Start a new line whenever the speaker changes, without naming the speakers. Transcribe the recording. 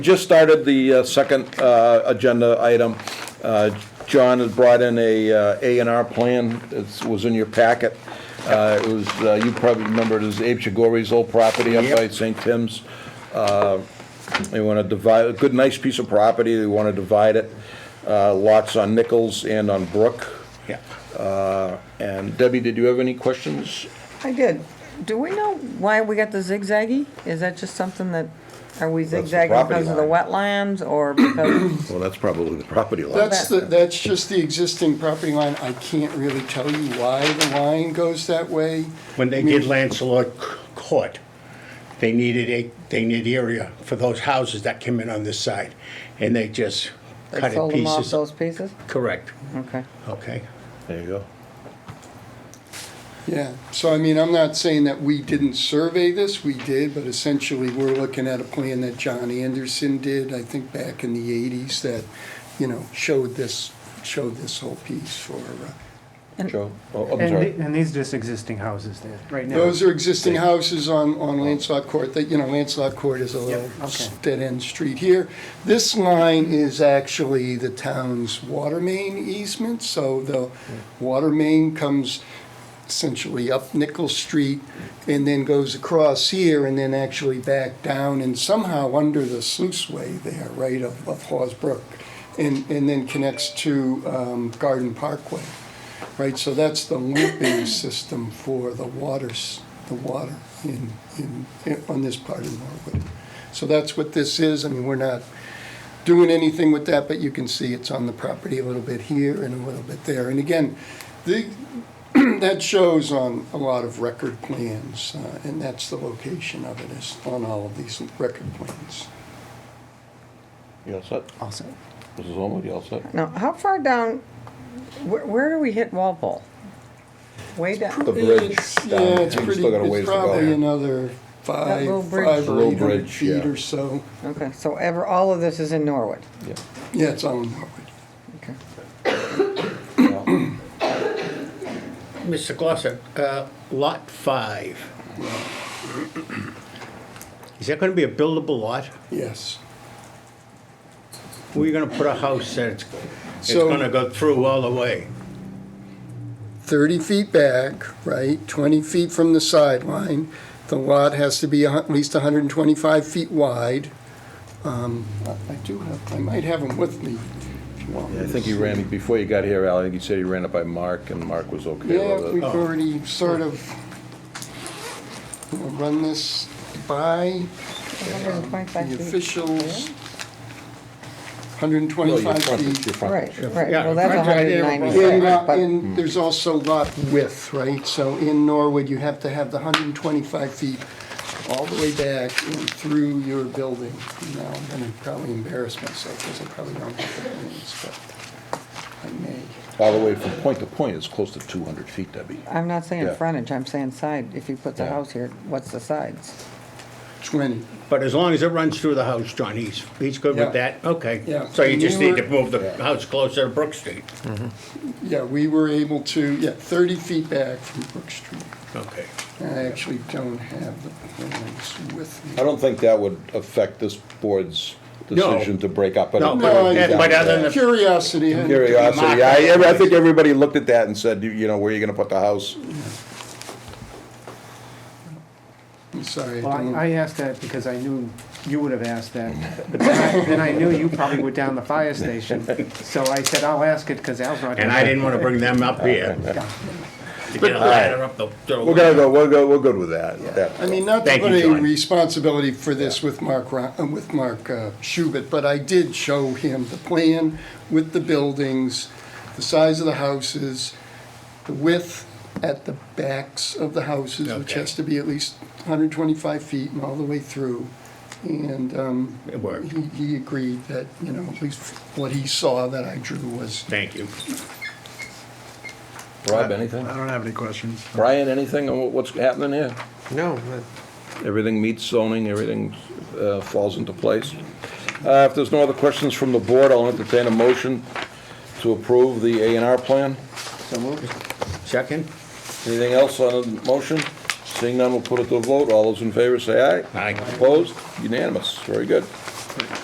Just started the uh, second uh, agenda item. Uh, John has brought in a uh, A and R plan. It was in your packet. Uh, It was, uh, you probably remember it as Abe Chagori's old property up by
Yep.
St. Tim's. Uh, They want to divide, a good, nice piece of property. They want to divide it. Uh, Lots on Nichols and on Brook.
Yeah.
Uh, And Debbie, did you have any questions?
I did. Do we know why we got the zigzaggy? Is that just something that, are we
the
zigzagging because of the wetlands or because?
Well, that's probably the property line.
That's the, that's just the existing property line. I can't really tell you why the line goes that way.
When they did Lancelot Court, they needed a, they needed area for those houses that came in on this side, and they just
They
cut it
sold them off
pieces.
those pieces?
Correct,
Okay.
okay.
There you go.
Yeah, so I mean, I'm not saying that we didn't survey this, we did, but essentially, we're looking at a plan that John Anderson did, I think back in the eighties, that, you know, showed this, showed this whole piece for, uh,
Joe? Oh, I'm
And,
sorry.
the- and these are just existing houses there, right now?
those are existing houses on, on Lancelot Court, that, you know, Lancelot Court is a little
okay.
dead-end street here. This line is actually the town's water main easement, so the water main comes essentially up Nickel Street and then goes across here and then actually back down and somehow under the sluiceway there, right, of, of Hawes Brook, and, and then connects to um, Garden Parkway, right? So that's the looping system for the waters, the water in, in, on this part of Norwood. So that's what this is. I mean, we're not doing anything with that, but you can see it's on the property a little bit here and a little bit there. And again, the, that shows on a lot of record plans, uh, and that's the location of it is on all of these record plans.
You all set?
Awesome.
Mrs. Holman, you all set?
Now, how far down, where, where do we hit Walpole? Way down,
The bridge
It's-
down,
Yeah, it's
you
pretty,
still got a ways
it's
to go.
probably another five,
little bridge.
five
The little
or eight hundred
bridge, yeah.
feet or so.
okay, so ever, all of this is in Norwood,
Yeah.
Yeah, it's on Norwood.
okay.
Mr. Glosser, uh, Lot 5. Is that gonna be a buildable lot?
Yes.
Where are you gonna put a house that's, it's
So-
gonna go through all the way?
30 feet back, right, 20 feet from the sideline. The lot has to be a hu- at least 125 feet wide. Um, I I do have, I might have them with me if you want.
I think he ran, before you got here, Al, I think he said he ran it by Mark, and Mark was okay
Yeah,
with
we've
it.
already sort of you know, run this by the
125 feet.
officials.
No, your
125
frontage, your
feet.
Right,
frontage.
right,
Yeah,
well, that's
right, right, yeah,
190,
And,
right,
uh,
but, Hmm.
and there's also lot width, right? So in Norwood, you have to have the 125 feet all the way back and through your building. Now, I'm gonna probably embarrass myself because I probably don't have the plans, but I may.
All the way from point to point, it's close to 200 feet, Debbie.
I'm not
Yeah.
saying frontage, I'm saying side, if you put the
Yeah.
house here, what's the sides?
20.
But as long as it runs through the house, John, he's, he's good
Yeah.
with that? Okay.
Yeah.
So you
And you
just need to
were-
move the house closer to Brook Street?
Yeah, we were able to, yeah, 30 feet back from Brook Street.
Okay.
I actually don't have the plans with me.
I don't think that would affect this board's
No.
decision to break up.
No,
it-
No, I-
but, but other than the
Curiosity. had-
Curiosity, I, I think everybody looked at that and said, you- you know, where are you gonna put the house?
I'm sorry.
Well,
I don't-
I- I asked that because I knew you would have asked that, but then I, then I knew you probably were down the fire station, so I said, I'll ask it because Al's not.
And I didn't want to bring them up here. To get a ladder up the.
We're gonna go, we'll go, we're good with that, that.
I mean, not to
Thank
put
you,
any
John.
responsibility for this with Mark, Ro- uh, with Mark uh, Schubert, but I did show him the plan with the buildings, the size of the houses, the width at the backs of the houses, which
Okay.
has to be at least 125 feet and all the way through. And um,
It worked.
he- he agreed that, you know, at least what he saw that I drew was
Thank you.
Rob, anything?
I don't have any questions.
Brian, anything on what- what's happening here?
No,
Everything meets zoning, everything uh, falls into place. Uh, If there's no other questions from the board, I'll entertain a motion to approve the A and R plan.
Second?
Anything else on the motion? Seeing none, we'll put it to a vote. All those in favor say aye.
Aye.
Opposed? Unanimous. Very good.